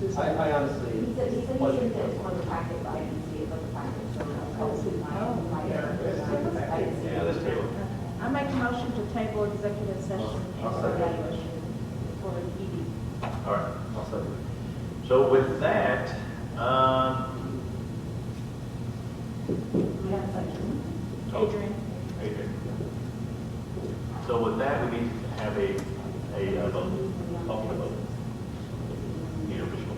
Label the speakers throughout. Speaker 1: I, I honestly
Speaker 2: He said, he said he
Speaker 1: wasn't.
Speaker 2: didn't get one of the packets, but I didn't see it, but the packets were not posted. I didn't like it. I didn't see it.
Speaker 3: Yeah, that's true.
Speaker 4: I make a motion to table executive session and evaluation for ED.
Speaker 3: All right, I'll second it. So with that, um,
Speaker 4: We have such,
Speaker 3: oh,
Speaker 4: Adrian,
Speaker 3: Adrian. So with that, we need to have a, a uh, vote, public vote. Need a visual.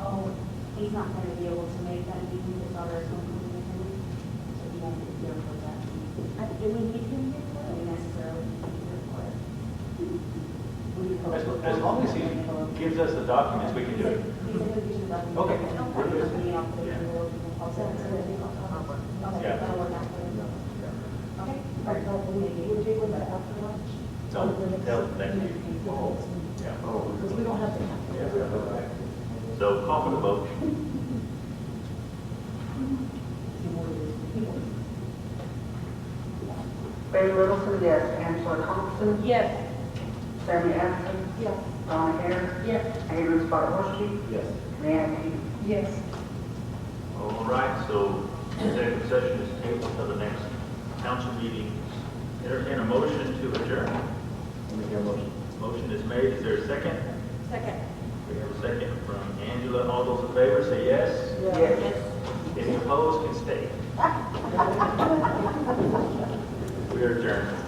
Speaker 2: Oh, he's not gonna be able to make that meeting, his daughter is going to be with him, so he won't be here for that meeting.
Speaker 4: I- do we need him here?
Speaker 2: So he necessarily be here for it. We hope-
Speaker 3: As, as long as he gives us the documents, we can do it.
Speaker 2: He's gonna be the button.
Speaker 3: Okay.
Speaker 2: We're just meeting up with
Speaker 3: Yeah.
Speaker 2: the world. I'll send it to him. Okay,
Speaker 3: Yeah.
Speaker 2: that'll work out. Okay.
Speaker 5: I thought we would deal with that after lunch.
Speaker 3: So, they'll, thank you. Yeah.
Speaker 5: Because we don't have to have.
Speaker 3: So call for the vote.
Speaker 6: Barry Littleson, yes. Angela Thompson,
Speaker 4: Yes.
Speaker 6: Sammy Anderson,
Speaker 5: Yes.
Speaker 6: Donna Hare,
Speaker 5: Yes.
Speaker 6: Adrian Spargo,
Speaker 1: Yes.
Speaker 6: Rand Peterson.
Speaker 5: Yes.
Speaker 3: All right, so executive session is tabled until the next council meeting. Entertain a motion to adjourn.
Speaker 1: Let me hear a motion.
Speaker 3: Motion is made. Is there a second?
Speaker 4: Second.
Speaker 3: We have a second from Angela. All those in favor say yes.
Speaker 6: Yes.
Speaker 3: Any opposed can stay. We are adjourned.